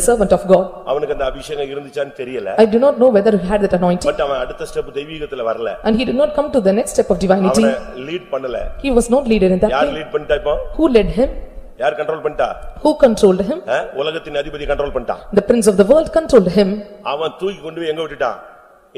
a servant of God. அவனுக்கு அந்த அபிஷேகம் இருந்துச்சான்னு தெரியல I do not know whether he had that anointing but அவன் அடுத்த ஸ்டெப் தெய்வீகத்துல வரல and he did not come to the next step of divinity. அவனை lead பண்ணல He was not leader in that யார் way. லீட் பண்ணிட்டா இப்போ Who led him? யார் control பண்ணிட்டா Who controlled him? ஆ? உலகத்தின் அதிபதி கண்ட்ரோல் பண்ணிட்டான் The prince of the world controlled him அவன் தூக்கி கொண்டு போய் எங்க விட்டுட்டான்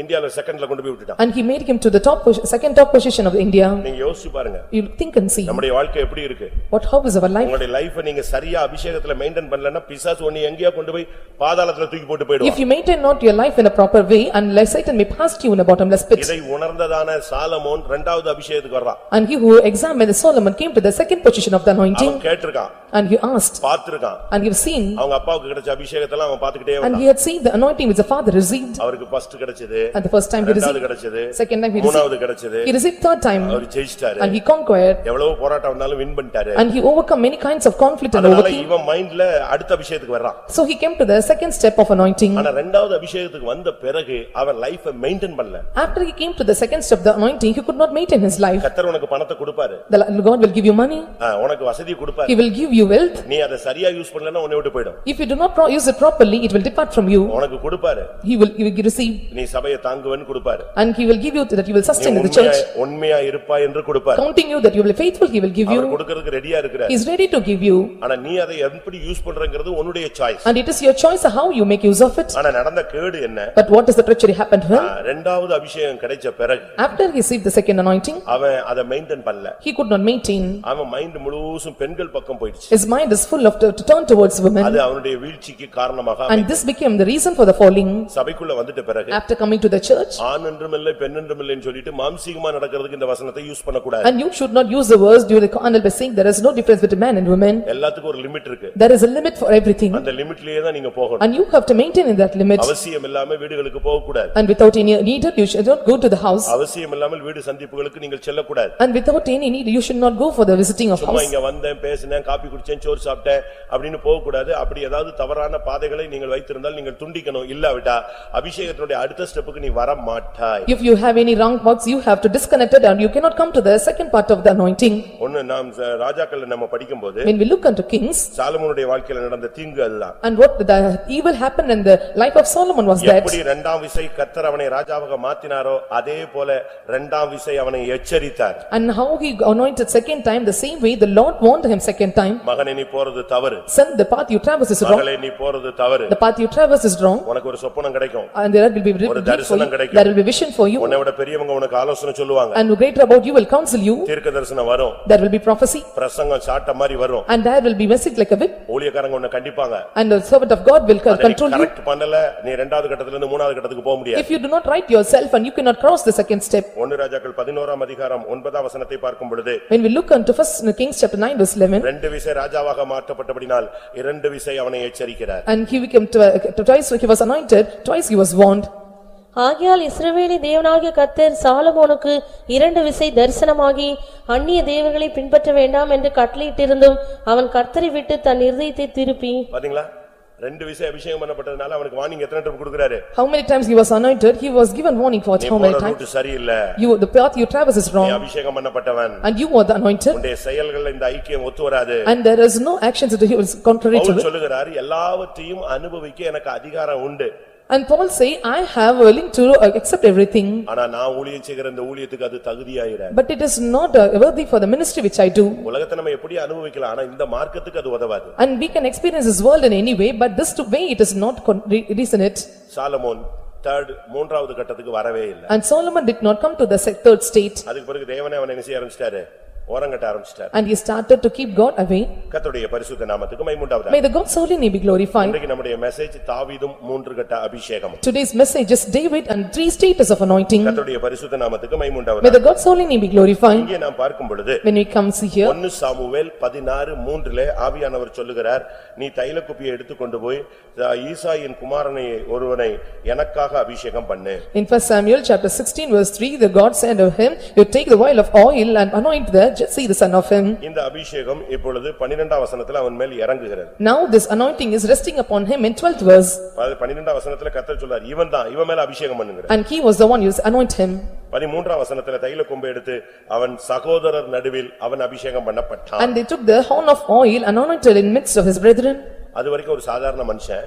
இந்தியால செகண்ட்ல கொண்டு போய் விட்டுட்டான் and he made him to the top, pos- second top position of India. நீங்க யோசிச்சு பாருங்க You think and see, நம்முடைய வாழ்க்கை எப்படி இருக்கு what, how is our life? உங்களுடைய லைஃப் நீங்க சரியா அபிஷேகத்துல மெயின்டைன் பண்ணலன்னா பிசாசு ஒண்ணு எங்கேயா கொண்டு போய் பாதாளத்துல தூக்கி போட்டு If போயிடுவான் you maintain not your life in a proper way unless Satan may pass you in a bottomless pit. இதை உணர்ந்ததான சாலமோன் இரண்டாவது அபிஷேகத்துக்கு வர்றான் And he who examined Solomon came to the second position of the அவன் anointing கேட்டிருக்கான் and he asked பார்த்திருக்கான் and he have seen அவங்க அப்பாவுக்கு கிடைச்ச அபிஷேகத்தெல்லாம் அவன் பாத்துக்கிட்டே and he வந்தான் had seen the anointing which the father received அவருக்கு ஃபர்ஸ்ட் கிடைச்சது and the first time he இரண்டாவது received, கிடைச்சது second time he மூணாவது received, கிடைச்சது he received third time அவர் ஜெயிச்சிட்டாரு and he conquered எவ்வளவு போராட்டம் வந்தாலும் வின் பண்ணிட்டாரு and he overcome many kinds of conflict and அதனால overcame. இவன் மைண்ட்ல அடுத்த அபிஷேகத்துக்கு வர்றான் So he came to the second step of anointing. ஆனா ரெண்டாவது அபிஷேகத்துக்கு வந்த பிறகு அவன் லைஃப மெயின்டைன் பண்ணல After he came to the second step of the anointing, he could not maintain his life. கத்தர் உனக்கு பணத்தை கொடுப்பாரு The God will give you money, ஆ, உனக்கு வசதி கொடுப்பாரு he will give you wealth. நீ அதை சரியா யூஸ் பண்ணலன்னா உன்னை விட்டு போயிடும் If you do not pro- use it properly, it will depart from you. உனக்கு கொடுப்பாரு He will, you will receive நீ சபையை தாங்குவேன்னு கொடுப்பாரு and he will give you that you will நீ sustain in the உண்மையா church. உண்மையா இருப்பாய் என்று கொடுப்பாரு counting you that you will be faithful, he will give our you, கொடுக்கறதுக்கு ரெடியா இருக்கிற he is ready to give you, ஆனா நீ அதை எப்படி யூஸ் பண்றங்கிறது உன்னுடைய choice and it is your choice how you make use of it. ஆனா நடந்த கேடு என்ன But what is the treachery happened to ah, him? ரெண்டாவது அபிஷேகம் கிடைச்ச பிறகு After he received the second anointing, அவன் அதை மெயின்டைன் பண்ணல he could not maintain, அவன் மைண்ட் முழுசும் பெண்கள் பக்கம் போயிடுச்சு his mind is full of, to turn towards women, அது அவனுடைய வீழ்ச்சிக்கு காரணமாக அமைந்தது. and this became the reason for the falling. சபைக்குள்ள வந்துட்ட பிறகு After coming to the church, ஆண் என்றுமில்லை பெண் என்றுமில்லைன்னு சொல்லிட்டு மாம்சீகமா நடக்கிறதுக்கு இந்த வசனத்தை யூஸ் பண்ணக்கூடாது and you should not use the words during the carnal by saying there is no difference between man and woman, எல்லாத்துக்கும் ஒரு லிமிட் இருக்கு there is a limit for everything, அந்த லிமிட்லயே தான் நீங்க போகணும் and you have to maintain in that limit, அவசியம் இல்லாம வீடுகளுக்கு போகக்கூடாது and without any need, you should not go to the house, அவசியம் இல்லாமல் வீடு சந்திப்புகளுக்கு நீங்கள் செல்லக்கூடாது and without any need, you should not go for the visiting of சும்மா house. இங்க வந்தேன் பேசினேன் காப்பி குடிச்சேன் சோறு சாப்பிட்டேன் அப்படின்னு போகக்கூடாது அப்படி ஏதாவது தவறான பாதைகளை நீங்கள் வைத்திருந்தால் நீங்கள் துண்டிக்கணும் இல்லாவிட்டா அபிஷேகத்தினுடைய அடுத்த ஸ்டெப்புக்கு நீ வர மாட்டாய் If you have any wrong thoughts, you have to disconnect it and you cannot come to the second part of the anointing. ஒன்னு நாம் ச- ராஜாக்கள் நம்ம படிக்கும்போது When we look unto kings சாலமோனுடைய வாழ்க்கையில நடந்த தீங்கு அதுதான் and what the evil happened in the life of Solomon was that எப்படி இரண்டாம் விசை கத்தர் அவனை ராஜாவாக மாத்தினாரோ அதே போல இரண்டாம் விசை அவனை எச்சரித்தார் and how he anointed second time, the same way the Lord warned him second time, மகனை நீ போறது தவறு son, the path you traverse is wrong, மகளே நீ போறது தவறு the path you traverse is wrong உனக்கு ஒரு சொப்பனம் கிடைக்கும் and there will be relief for தரிசனம் you, கிடைக்கும். there will be vision for you உன்னை விட பெரியவங்க உனக்கு ஆலோசனை சொல்லுவாங்க and greater about you will counsel you, தீர்க்க தரிசனம் வரும் there will be prophecy பிரசங்கம் சாட்ட மாதிரி வரும் and there will be message like a whip ஊழியக்காரங்க உன்னை கண்டிப்பாங்க and the servant of God will co- அதை நீ control you. கரெக்ட் பண்ணல நீ இரண்டாவது கட்டத்துல இருந்து மூணாவது கட்டத்துக்கு போக முடியாது If you do not right yourself and you cannot cross the second step, ஒன்னு ராஜாக்கள் பதினோராம் அதிகாரம் ஒன்பதாம் வசனத்தை பார்க்கும் பொழுது When we look unto first Kings chapter nine verse eleven, ரெண்டு விசை ராஜாவாக மாற்றப்பட்டபடினால் இரண்டு விசை அவனை எச்சரிக்கிறார் and he became twi- uh, twice, he was anointed, twice he was warned. ஆகையால் இஸ்ரவேலி தேவனாகிய கர்த்தர் சாலமோனுக்கு இரண்டு விசை தரிசனமாகி அந்நிய தேவர்களை பின்பற்ற வேண்டாம் என்று கட்டளையிட்டிருந்தும் அவன் கர்த்தரை விட்டு தன் இருதயத்தை திருப்பி பாத்தீங்களா ரெண்டு விசை அபிஷேகம் பண்ணப்பட்டதுனால அவனுக்கு வார்னிங் எத்தனை டைம் கொடுக்குறாரு How many times he was anointed, he was given warning for நீ how போற many times? ரூட் சரியில்லை You, the path you traverse is நீ wrong, அபிஷேகம் பண்ணப்பட்டவன் and you are the anointed, உன்னுடைய செயல்கள் இந்த ஐக்கியம் ஒத்து வராது and there is no actions that he was contrary to Pavul it. சொல்லுகிறார் எல்லாவற்றையும் அனுபவிக்க எனக்கு அதிகாரம் உண்டு And Paul say, "I have willing to uh, accept everything, ஆனா நான் ஊழியம் செய்கிற இந்த ஊழியத்துக்கு அது தகுதியாயிராது but it is not uh, worthy for the ministry which I do." உலகத்தை நம்ம எப்படி அனுபவிக்கலாம் ஆனா இந்த மார்க்கத்துக்கு அது உதவாது And we can experience this world in any way, but this to way it is not con- re- reason it. Solomon third மூன்றாவது கட்டத்துக்கு வரவே இல்லை And Solomon did not come to the se- third state, அதுக்கு பிறகு தேவனே அவனை என்ன செய்ய ஆரம்பிச்சிட்டாரு ஓரங்கட்ட ஆரம்பிச்சிட்டாரு and he started to keep God away. கர்த்தருடைய பரிசுத்த நாமத்துக்கு மைமுண்டாவதா May the God's holy name be glorified. இன்றைக்கு நம்முடைய மெசேஜ் தாவீதும் மூன்று கட்ட அபிஷேகம் Today's message is David and three status of anointing. கர்த்தருடைய பரிசுத்த நாமத்துக்கு May மைமுண்டாவதா the God's holy name be glorified. இங்கே நாம் பார்க்கும் பொழுது When we come see here, ஒன்னு சாமுவேல் பதினாறு மூன்றிலே ஆவியானவர் சொல்லுகிறார் நீ தைல குப்பியை எடுத்துக்கொண்டு போய் தா- ஈசாயின் குமாரனை ஒருவனை எனக்காக அபிஷேகம் பண்ணு in first Samuel chapter sixteen verse three, the God said of him, "You take the oil of oil and anoint the Jesse the son of him." இந்த அபிஷேகம் இப்பொழுது பன்னிரெண்டாம் வசனத்துல அவன் மேல் இறங்குகிறது Now this anointing is resting upon him in twelfth verse, அது பன்னிரெண்டாம் வசனத்துல கத்தர் சொல்றார் இவன் தான் இவன் மேல அபிஷேகம் பண்ணுங்கிற and he was the one who anointed him. பதிமூன்றாம் வசனத்துல தைல கொம்பை எடுத்து அவன் சகோதரர் நடுவில் அவன் அபிஷேகம் பண்ணப்பட்டான் And they took the horn of oil and anointed in midst of his brethren. அது வரைக்கும் ஒரு சாதாரண மனுஷன்